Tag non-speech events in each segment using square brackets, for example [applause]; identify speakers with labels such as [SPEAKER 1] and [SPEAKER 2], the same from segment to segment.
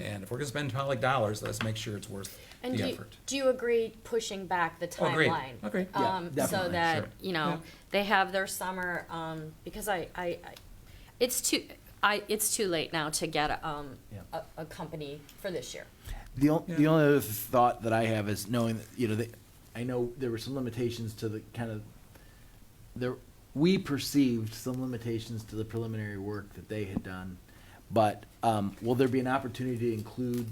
[SPEAKER 1] And if we're gonna spend public dollars, let's make sure it's worth
[SPEAKER 2] Mm-hmm. And do
[SPEAKER 1] the
[SPEAKER 2] you,
[SPEAKER 1] effort.
[SPEAKER 2] do you agree pushing back the
[SPEAKER 1] Oh, agreed.
[SPEAKER 2] timeline?
[SPEAKER 1] Agreed. Yeah,
[SPEAKER 2] Um, so
[SPEAKER 1] definitely,
[SPEAKER 2] that,
[SPEAKER 1] sure.
[SPEAKER 2] you
[SPEAKER 1] Yeah.
[SPEAKER 2] know, they have their summer, um, because I, I, I- it's too, I, it's too late now to get, um,
[SPEAKER 3] Yeah.
[SPEAKER 2] a, a company for this year.
[SPEAKER 3] The, on- the
[SPEAKER 1] Yeah.
[SPEAKER 3] only other thought that I have is knowing that, you know, they, I know there were some limitations to the kind of, there, we perceived some limitations to the preliminary work that they had done. But, um, will there be an opportunity to include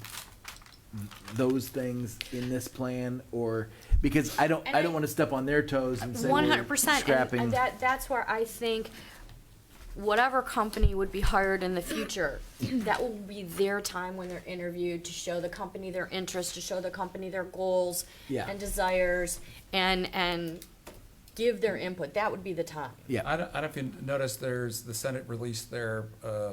[SPEAKER 3] those things in this plan or, because I don't,
[SPEAKER 2] And
[SPEAKER 3] I don't
[SPEAKER 2] I-
[SPEAKER 3] want to step on their toes and say
[SPEAKER 2] One hundred
[SPEAKER 3] we're
[SPEAKER 2] percent, and,
[SPEAKER 3] scrapping.
[SPEAKER 2] and that, that's where I think whatever company would be hired in the future, that will be their time when they're interviewed to show the company their interest, to show the company their goals
[SPEAKER 3] Yeah.
[SPEAKER 2] and desires, and, and give their input, that would be the time.
[SPEAKER 3] Yeah,
[SPEAKER 1] I don't, I don't know if you noticed, there's, the Senate released their, uh,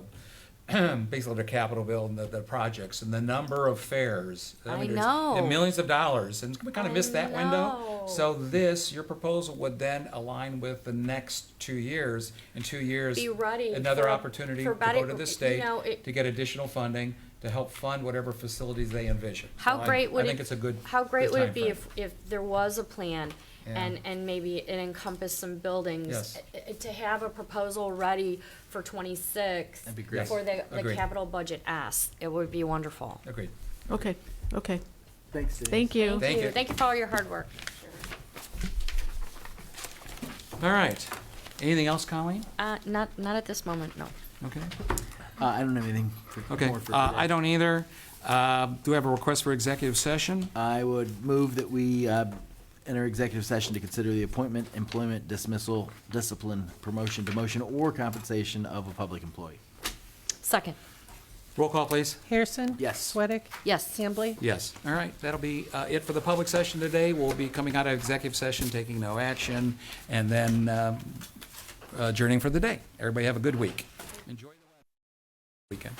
[SPEAKER 1] [clears throat] basically their capital bill and the, the projects and the number of fairs.
[SPEAKER 2] I
[SPEAKER 1] mean, there's-
[SPEAKER 2] know.
[SPEAKER 1] and Millions of dollars, and we kind of
[SPEAKER 2] I
[SPEAKER 1] missed that window.
[SPEAKER 2] know.
[SPEAKER 1] So this, your proposal would then align with the next two years. In two years,
[SPEAKER 2] Be ready
[SPEAKER 1] another
[SPEAKER 2] for-
[SPEAKER 1] opportunity
[SPEAKER 2] for
[SPEAKER 1] to go
[SPEAKER 2] better-
[SPEAKER 1] to this
[SPEAKER 2] you
[SPEAKER 1] state
[SPEAKER 2] know, it-
[SPEAKER 1] to get additional funding to help fund whatever facilities they envision.
[SPEAKER 2] How
[SPEAKER 1] So I-
[SPEAKER 2] great would
[SPEAKER 1] I
[SPEAKER 2] it?
[SPEAKER 1] think it's a good.
[SPEAKER 2] How great
[SPEAKER 1] good
[SPEAKER 2] would it be
[SPEAKER 1] timeframe.
[SPEAKER 2] if, if there was a plan and,
[SPEAKER 1] Yeah.
[SPEAKER 2] and maybe it encompassed some buildings?
[SPEAKER 1] Yes.
[SPEAKER 2] eh, eh, To have a proposal ready for twenty-six.
[SPEAKER 3] That'd be great.
[SPEAKER 2] For the, the
[SPEAKER 1] Agreed.
[SPEAKER 2] capital budget ask, it would be wonderful.
[SPEAKER 1] Agreed.
[SPEAKER 4] Okay, okay,
[SPEAKER 3] thanks, Denise.
[SPEAKER 4] thank you.
[SPEAKER 1] Thank you.
[SPEAKER 2] Thank you for all your hard work.
[SPEAKER 1] All right. Anything else, Colleen?
[SPEAKER 2] Uh, not, not at this moment, no.
[SPEAKER 1] Okay.
[SPEAKER 3] Uh, I don't have anything for,
[SPEAKER 1] Okay,
[SPEAKER 3] more for
[SPEAKER 1] uh,
[SPEAKER 3] today.
[SPEAKER 1] I don't either. Uh, Do we have a request for executive session?
[SPEAKER 3] I would move that we uh, enter executive session to consider the appointment, employment dismissal, discipline, promotion, demotion, or compensation of a public employee.
[SPEAKER 2] Second,
[SPEAKER 1] Roll call, please.
[SPEAKER 5] Harrison?
[SPEAKER 3] Yes.
[SPEAKER 5] Sweattick?
[SPEAKER 2] yes.
[SPEAKER 5] Hambley?
[SPEAKER 1] Yes. All right, that'll be uh, it for the public session today. We'll be coming out of executive session, taking no action, and then um, adjourning for the day. Everybody have a good week. Enjoy the weekend.